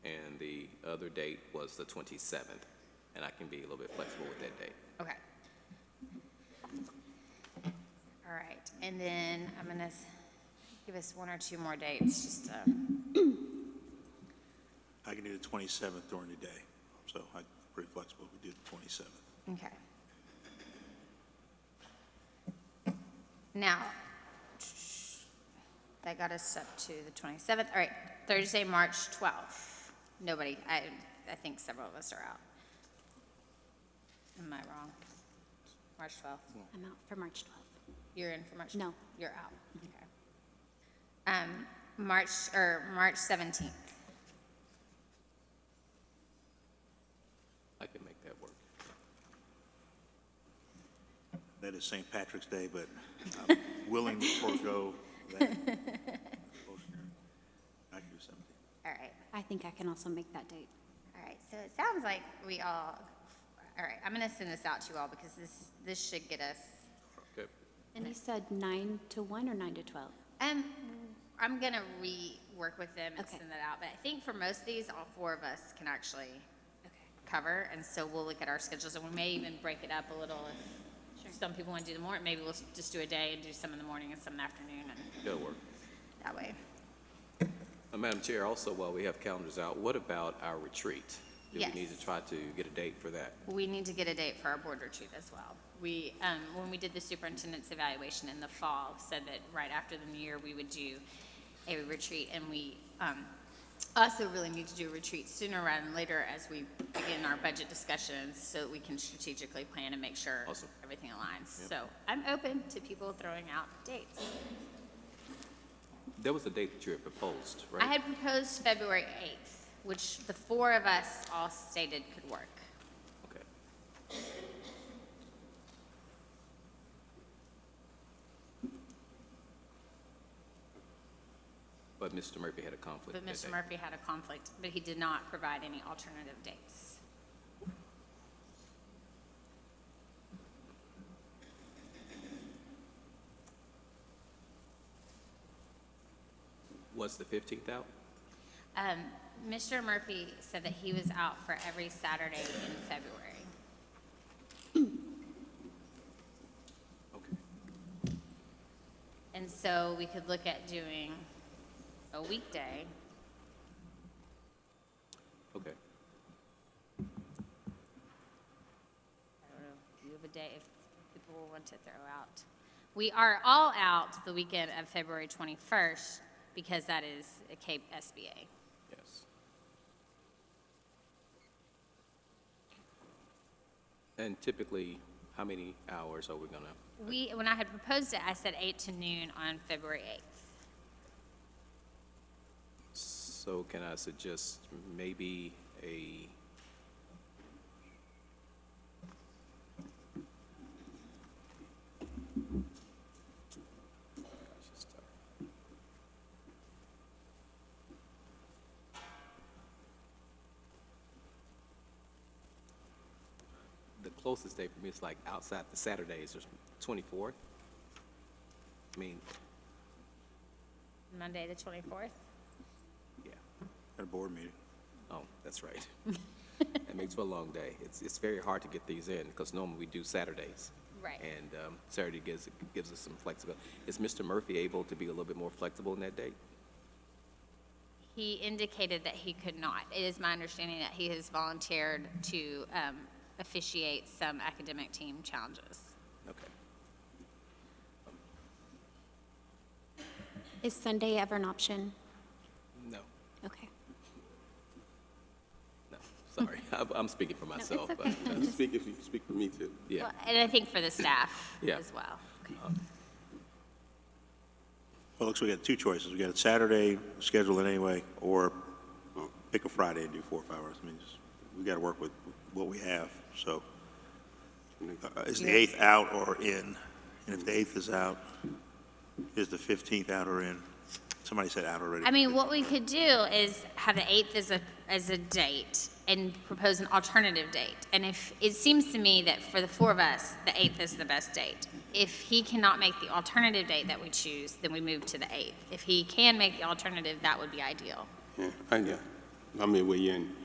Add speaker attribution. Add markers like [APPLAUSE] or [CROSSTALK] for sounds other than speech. Speaker 1: other date was the 27th, and I can be a little bit flexible with that date.
Speaker 2: Okay. All right, and then I'm gonna s- give us one or two more dates, just, um,
Speaker 3: I can do the 27th during the day, so I'm pretty flexible. We do the 27th.
Speaker 2: okay. Now, that got us up to the 27th, all right, Thursday, March 12th. Nobody, I, I think several of us are out. Am I wrong? March 12th?
Speaker 4: I'm out for March 12th.
Speaker 2: You're in for March?
Speaker 4: No.
Speaker 2: You're out, okay. Um, March, or March 17th,
Speaker 1: I can make that work.
Speaker 3: That is St. Patrick's Day, but I'm willing to forego that. I can do 17th.
Speaker 2: all right,
Speaker 4: I think I can also make that date.
Speaker 2: all right, so it sounds like we all, all right, I'm gonna send this out to you all because this, this should get us,
Speaker 1: Okay.
Speaker 4: And you said 9 to 1 or 9 to 12?
Speaker 2: um, I'm gonna rework with them and
Speaker 4: Okay.
Speaker 2: send that out, but I think for most of these, all four of us can actually
Speaker 4: Okay.
Speaker 2: cover, and so we'll look at our schedules, and we may even break it up a little if some people wanna do the morning, maybe we'll s- just do a day and do some in the morning and some in the afternoon, and
Speaker 1: That'll work.
Speaker 2: that way.
Speaker 1: Uh, Madam Chair, also, while we have calendars out, what about our retreat? Do
Speaker 2: Yes.
Speaker 1: we need to try to get a date for that?
Speaker 2: We need to get a date for our board retreat as well. We, um, when we did the superintendent's evaluation in the fall, said that right after the new year, we would do a retreat, and we, um, also really need to do a retreat sooner rather than later as we begin our budget discussions, so that we can strategically plan and make sure
Speaker 1: Awesome.
Speaker 2: everything aligns. So I'm open to people throwing out dates.
Speaker 1: There was a date that you had proposed, right?
Speaker 2: I had proposed February eighth, which the four of us all stated could work.
Speaker 1: Okay. But Mr. Murphy had a conflict
Speaker 2: But
Speaker 1: that
Speaker 2: Mr.
Speaker 1: day.
Speaker 2: Murphy had a conflict, but he did not provide any alternative dates.
Speaker 1: Was the 15th out?
Speaker 2: Um, Mr. Murphy said that he was out for every Saturday in February.
Speaker 1: Okay.
Speaker 2: And so we could look at doing a weekday.
Speaker 1: Okay.
Speaker 2: I don't know, do you have a day if people want to throw out? We are all out the weekend of February 21st because that is a Cape SBA.
Speaker 1: Yes. And typically, how many hours are we gonna,
Speaker 2: We, when I had proposed it, I said 8 to noon on February 8th.
Speaker 1: so can I suggest maybe a, the closest day for me is like outside the Saturdays, there's 24th. I mean,
Speaker 2: Monday, the 24th?
Speaker 1: yeah.
Speaker 3: At a board meeting.
Speaker 1: Oh, that's right. [LAUGHS] That makes for a long day. It's, it's very hard to get these in, because normally we do Saturdays.
Speaker 2: Right.
Speaker 1: And um, Saturday gives, gives us some flexibility. Is Mr. Murphy able to be a little bit more flexible in that date?
Speaker 2: He indicated that he could not. It is my understanding that he has volunteered to um, officiate some academic team challenges.
Speaker 1: Okay.
Speaker 4: Is Sunday ever an option?
Speaker 1: No,
Speaker 4: Okay.
Speaker 1: no, sorry. [LAUGHS] I'm- I'm speaking for myself. but, uh,
Speaker 5: Speak if you speak for me too.
Speaker 1: Yeah,
Speaker 2: Well, And I think for the staff
Speaker 1: [CLEARS THROAT] Yeah.
Speaker 2: as well.
Speaker 3: Well, it looks we got two choices. We got a Saturday, schedule it anyway, or pick a Friday and do four or five hours. I mean, just, we got to work with what we have, so. uh, Is the 8th out or in? And if the 8th is out, is the 15th out or in? Somebody said out already.
Speaker 2: I mean, what we could do is have the 8th as a, as a date and propose an alternative date. And if, it seems to me that for the four of us, the 8th is the best date. If he cannot make the alternative date that we choose, then we move to the 8th. If he can make the alternative, that would be ideal.
Speaker 5: Yeah, I, yeah. I'm midway in.